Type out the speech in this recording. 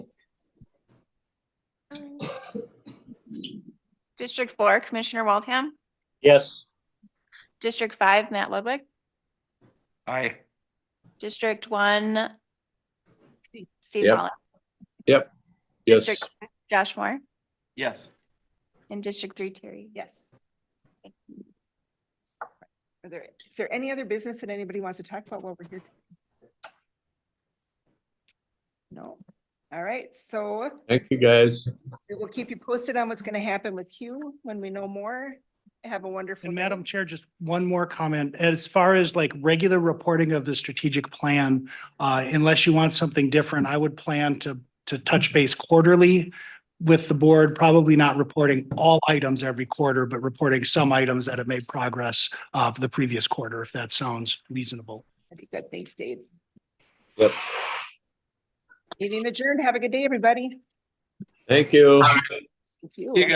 District four, Commissioner Waldham. Yes. District five, Matt Ludwig. Aye. District one, Steve- Steve Yep. Holland. Yes. District five, Josh Moore Yes. and District three, Terry. Yes. Are there, is there any other business that anybody wants to talk about while we're here? No. All right, so Thank you, guys. we'll keep you posted on what's going to happen with Hugh when we know more. Have a wonderful. And day. Madam Chair, just one more comment. As far as like regular reporting of the strategic plan, uh, unless you want something different, I would plan to, to touch base quarterly with the board, probably not reporting all items every quarter, but reporting some items that have made progress of the previous quarter, if that sounds reasonable. That'd be Good, thanks, Dave. Yep. Meeting adjourned. Have a good day, everybody. Thank you. Thank you. You